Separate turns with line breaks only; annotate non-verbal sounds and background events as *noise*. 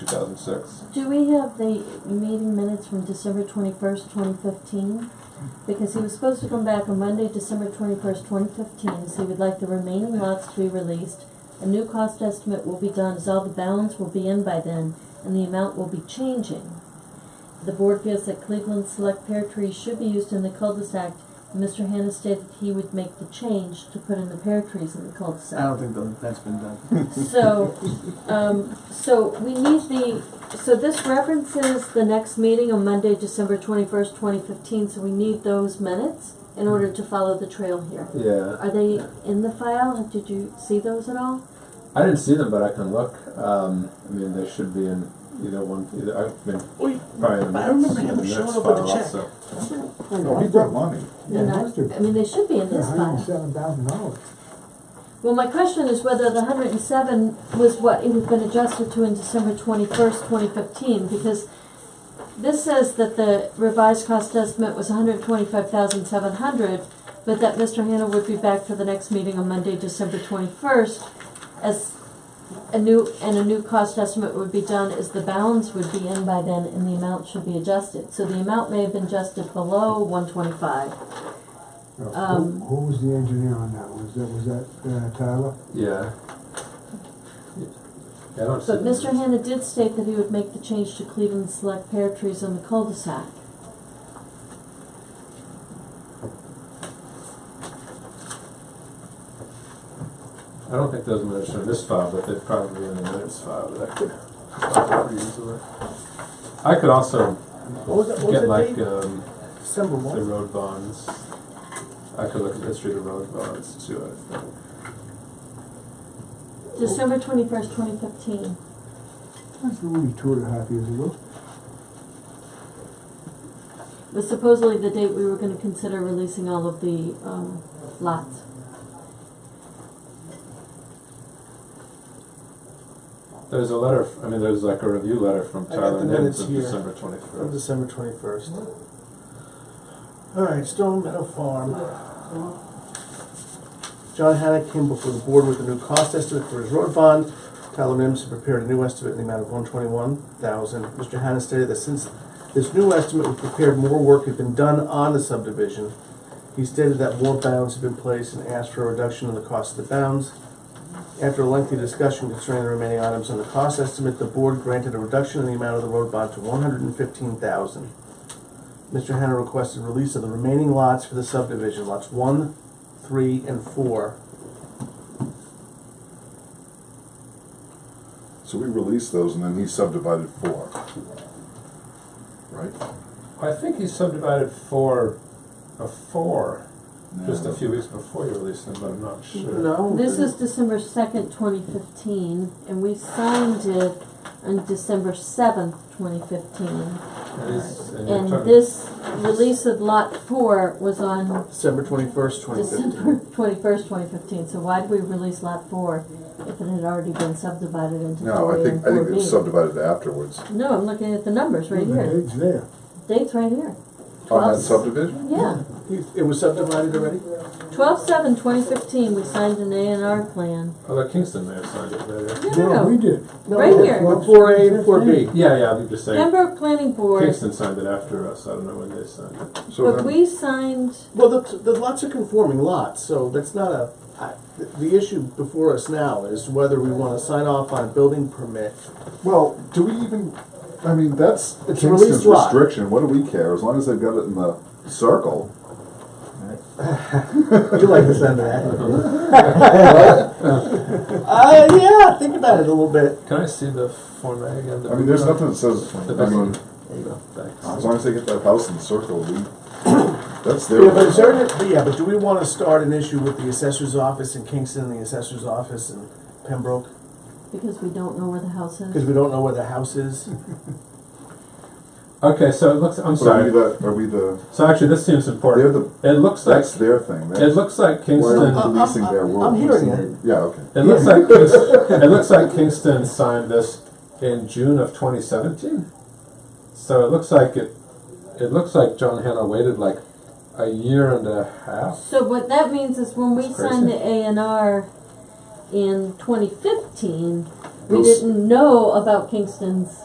thousand six.
Do we have the meeting minutes from December twenty-first, twenty fifteen? Because he was supposed to come back on Monday, December twenty-first, twenty fifteen, so he would like the remaining lots to be released. A new cost estimate will be done as all the balance will be in by then, and the amount will be changing. The board feels that Cleveland Select Pear Trees should be used in the cul-de-sac. Mr. Hannah stated he would make the change to put in the pear trees in the cul-de-sac.
Oh,
I don't think tho- that's been done.
So, um, so we need the, so this references the next meeting on Monday, December twenty-first, twenty fifteen, so we need those minutes in order to follow the trail here.
Yeah,
Are they in the file? Did you see those at all?
I didn't see them, but I can look. Um, I mean, they should be in either one. Either I've been
Oh, you-
probably in the
I remember
minutes- in
him
the
showing
minutes
up with
file
a check.
also.
No, he brought money.
They're not- I mean, they should be in this file.
seven thousand dollars.
Well, my question is whether the hundred and seven was what it had been adjusted to in December twenty-first, twenty fifteen, because this says that the revised cost estimate was hundred twenty-five thousand seven hundred, but that Mr. Hannah would be back for the next meeting on Monday, December twenty-first, as a new, and a new cost estimate would be done as the balance would be in by then and the amount should be adjusted. So the amount may have been adjusted below one twenty-five. Um,
Who who was the engineer on that? Was that, was that uh, Tyler?
Yeah. Yeah, I don't see
But
them.
Mr. Hanna did state that he would make the change to Cleveland Select pear trees on the cul-de-sac.
I don't think those minutes are in this file, but they're probably in the minutes file that I could find pretty easily. I could also
What was that, what
get
was
like,
that date?
um,
December
the
one?
road bonds. I could look at the history of the road bonds too, I think.
December twenty-first, twenty fifteen.
That's only two and a half years ago.
Was supposedly the date we were gonna consider releasing all of the, um, lots.
There's a letter, f- I mean, there's like a review letter from
I got
Tyler
the
Nibbs
minutes
of
here.
December
Of
twenty-first.
December twenty-first. Alright, Stone Meadow Farm. John Haddock came before the board with a new cost estimate for his road bond. Tyler Mims had prepared a new estimate in the amount of one twenty-one thousand. Mr. Haddock stated that since this new estimate was prepared, more work had been done on the subdivision. He stated that more bounds had been placed and asked for a reduction in the cost of the bounds. After a lengthy discussion concerning the remaining items on the cost estimate, the board granted a reduction in the amount of the road bond to one hundred and fifteen thousand. Mr. Hanna requested release of the remaining lots for the subdivision, lots one, three, and four.
So we released those and then he subdivided four. Right?
I think he subdivided four, a four, just a
Yeah.
few weeks before you released them, but I'm not sure.
No.
This is December second, twenty fifteen, and we signed it on December seventh, twenty fifteen.
And he's- and you're
And
talking-
this release of lot four was on
December twenty-first, twenty
December
fifteen.
twenty-first, twenty fifteen, so why did we release lot four if it had already been subdivided into
No,
four A
I
and
think, I think
four
it was
B?
subdivided afterwards.
No, I'm looking at the numbers right here,
The date's there.
dates right here.
On that
Twelve,
subdivision?
yeah,
It was subdivided already?
twelve seven, twenty fifteen, we signed an A and R plan.
Although Kingston may have signed it later.
No, no,
we
no,
did.
right here,
The four A and four B.
Yeah, yeah, I'm just saying,
Pembroke Planning Board,
Kingston signed it after us, I don't know when they signed it.
So
but
then,
we signed,
Well, the, the lots are conforming lots, so that's not a, I- the- the issue before us now is whether we wanna sign off on a building permit.
well, do we even, I mean, that's
It's a released
Kingston's
lot.
restriction, what do we care, as long as they've got it in the circle?
You like the sound of that? *laughs* Uh, yeah, think about it a little bit.
Can I see the Form A again?
I mean, there's nothing that says,
The
I
best-
mean,
There you go, thanks.
as long as they get that house in the circle, we, that's their.
Yeah, but is there, but yeah, but do we wanna start an issue with the assessor's office in Kingston, and the assessor's office in Pembroke?
because we don't know where the house
Cause
is.
we don't know where the house is?
Okay, so it looks, I'm
But Are
sorry,
we the, are we the,
so actually this seems
they're
important.
the,
It looks like,
that's their thing,
it
that's,
looks like
why are
Kingston.
Oh,
we policing their world?
Uh, I'm hearing it.
Yeah, okay.
It looks like Kingston, it looks like Kingston signed this in June of 2017. So it looks like it. It looks like John Hanna waited like a year and a half.
So what that means is when we
That's
signed the
crazy.
A and R in twenty fifteen, we
Those-
didn't know about Kingston's